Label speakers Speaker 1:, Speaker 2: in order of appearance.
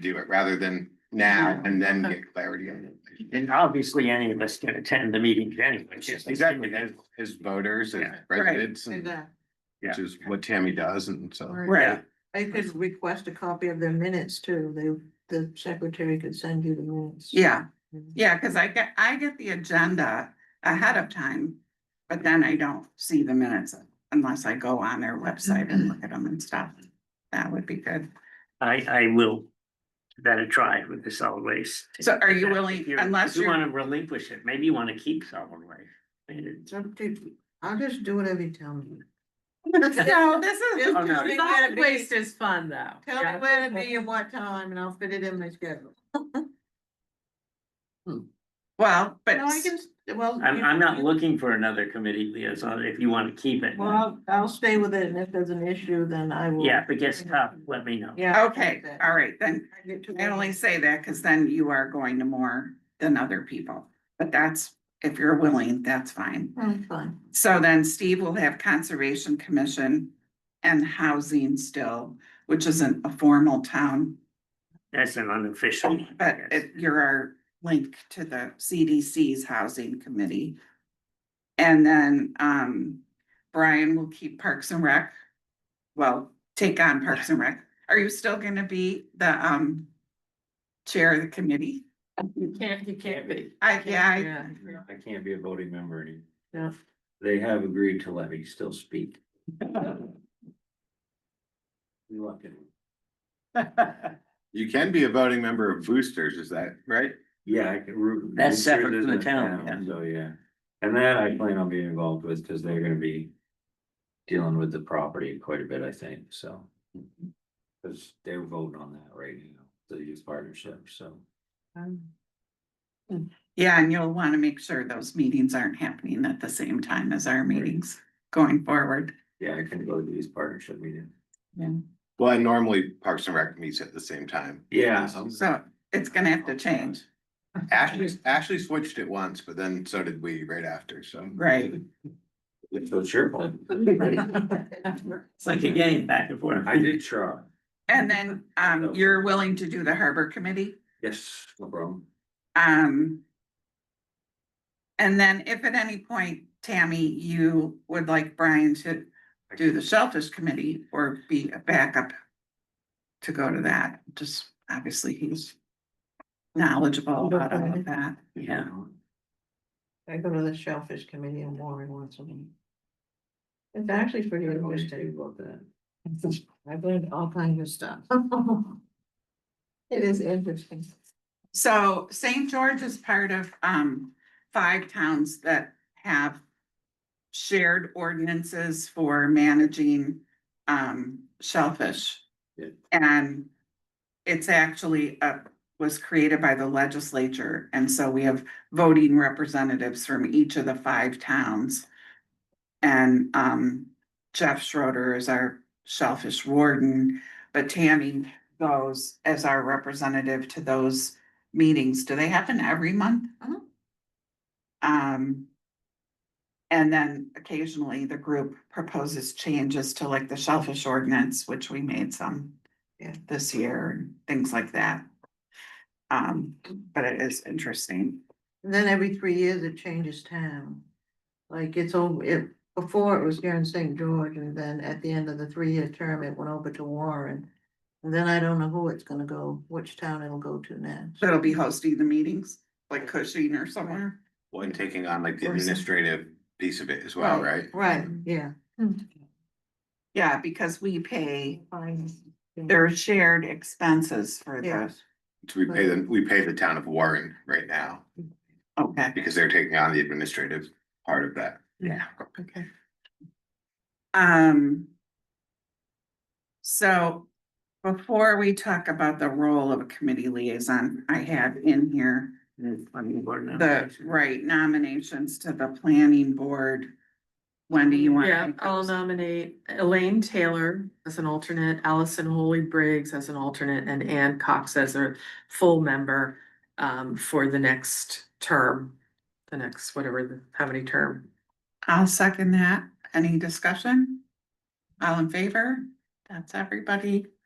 Speaker 1: do it rather than now and then
Speaker 2: Okay.
Speaker 1: get clarity on it.
Speaker 3: And obviously, any of us can attend the meetings anyway. just-
Speaker 1: Exactly, as, as voters and
Speaker 3: Yeah.
Speaker 1: residents, and-
Speaker 2: Exactly.
Speaker 1: which is what Tammy does, and so.
Speaker 3: Right,
Speaker 4: I could request a copy of their minutes too. They, the secretary could send you the minutes.
Speaker 2: Yeah,
Speaker 4: Mm-hmm.
Speaker 2: yeah, cause I get, I get the agenda ahead of time, but then I don't see the minutes unless I go on their website and look at them and stuff. That would be good.
Speaker 3: I, I will that a try with the solid waste.
Speaker 2: So are you
Speaker 3: If
Speaker 2: willing-
Speaker 3: you're-
Speaker 2: unless
Speaker 3: if You
Speaker 2: you're-
Speaker 3: wanna relinquish it, maybe you wanna keep solid waste. I mean, it's-
Speaker 4: It's up to- I'll just do whatever you tell me.
Speaker 2: No, this is,
Speaker 3: Oh, no.
Speaker 4: Just
Speaker 5: Solid
Speaker 4: tell me
Speaker 5: waste is fun though.
Speaker 4: Tell
Speaker 5: Yeah.
Speaker 4: me where to be and what time and I'll fit it in my schedule.
Speaker 2: well, but,
Speaker 4: No, I can, s- well.
Speaker 3: I'm,
Speaker 4: you-
Speaker 3: I'm not looking for another committee liaison if you wanna keep it.
Speaker 4: Well, I'll- I'll stay with it and if there's an issue, then I will.
Speaker 3: Yeah, if it gets tough, let me know.
Speaker 4: Yeah.
Speaker 2: okay, all right, then. I only say that because then you are going to more than other people, but that's, if you're willing, that's fine.
Speaker 4: I'm fine.
Speaker 2: So then Steve will have Conservation Commission and Housing still, which isn't a formal town
Speaker 3: That's an unofficial. one, I
Speaker 2: But
Speaker 3: guess.
Speaker 2: it, you're our link to the CDC's housing committee. And then, um, Brian will keep Parks and Rec. Well, take on Parks and Rec. Are you still gonna be the, um, chair of the committee?
Speaker 5: You can't, you can't be.
Speaker 2: I, yeah,
Speaker 5: Yeah.
Speaker 6: I can't be a voting member any.
Speaker 4: Yeah.
Speaker 6: They have agreed to let me still speak. You lucky.
Speaker 1: You can be a voting member of Boosters, is that right?
Speaker 6: Yeah, I can. root-
Speaker 3: That's separate from the
Speaker 6: root it
Speaker 3: town,
Speaker 6: down,
Speaker 3: yeah.
Speaker 6: So, yeah, and that I plan on being involved with, cause they're gonna be dealing with the property quite a bit, I think, so. Cause they're voting on that right now, the youth partnership, so.
Speaker 2: yeah, and you'll wanna make sure those meetings aren't happening at the same time as our meetings going forward.
Speaker 6: Yeah, I can go to the youth partnership meeting.
Speaker 1: Well, and normally Parks and Rec meets at the same time.
Speaker 6: Yeah.
Speaker 2: So it's gonna have to change,
Speaker 1: Ashley, Ashley switched it once, but then so did we right after, so.
Speaker 2: right?
Speaker 6: It's so cheerful.
Speaker 3: It's like a game back and forth.
Speaker 6: I did try.
Speaker 2: And then, um, you're willing to do the harbor committee?
Speaker 6: Yes, no problem.
Speaker 2: Um. And then if at any point, Tammy, you would like Brian to do the shellfish committee or be a backup. To go to that, just obviously he's knowledgeable about all of that.
Speaker 3: Yeah.
Speaker 4: I go to the shellfish committee in Warren once a week. It's actually pretty
Speaker 6: Yeah, what do you
Speaker 4: interesting.
Speaker 6: think about that?
Speaker 4: I've learned all kinds of stuff. It is interesting.
Speaker 2: So St. George is part of um five towns that have. Shared ordinances for managing um shellfish.
Speaker 6: Yeah.
Speaker 2: And it's actually uh was created by the legislature, and so we have voting representatives from each of the five towns. And um Jeff Schroeder is our shellfish warden, but Tammy goes as our representative to those meetings. Do they happen every month?
Speaker 4: Mhm.
Speaker 2: Um. And then occasionally the group proposes changes to like the shellfish ordinance, which we made some.
Speaker 4: Yeah.
Speaker 2: This year, and things like that. Um, but it is interesting.
Speaker 4: And then every three years it changes town. Like it's all, it, before it was here in St. George and then at the end of the three-year term, it went over to Warren. And then I don't know who it's gonna go, which town it'll go to next.
Speaker 2: So it'll be hosting the meetings, like Cushing or somewhere.
Speaker 1: Well, and taking on like the
Speaker 2: Or some-
Speaker 1: administrative piece of it as well, right?
Speaker 4: Right, yeah.
Speaker 2: Yeah, because we pay their shared expenses for
Speaker 4: Yeah.
Speaker 2: this.
Speaker 1: So we pay them, we pay the town of Warren right now
Speaker 2: Okay.
Speaker 1: because they're taking on the administrative part of that.
Speaker 3: Yeah.
Speaker 2: Okay. Um. So before we talk about the role of a committee liaison, I have in here
Speaker 3: And it's funny, we're not-
Speaker 2: the right nominations to the planning board. Wendy, you want?
Speaker 5: Yeah, I'll nominate Elaine Taylor as an alternate, Allison Holy Briggs as an alternate, and Ann Cox as a full member um, for the next term, the next whatever, the- how many term.
Speaker 2: I'll second that. Any discussion? All in favor? That's everybody.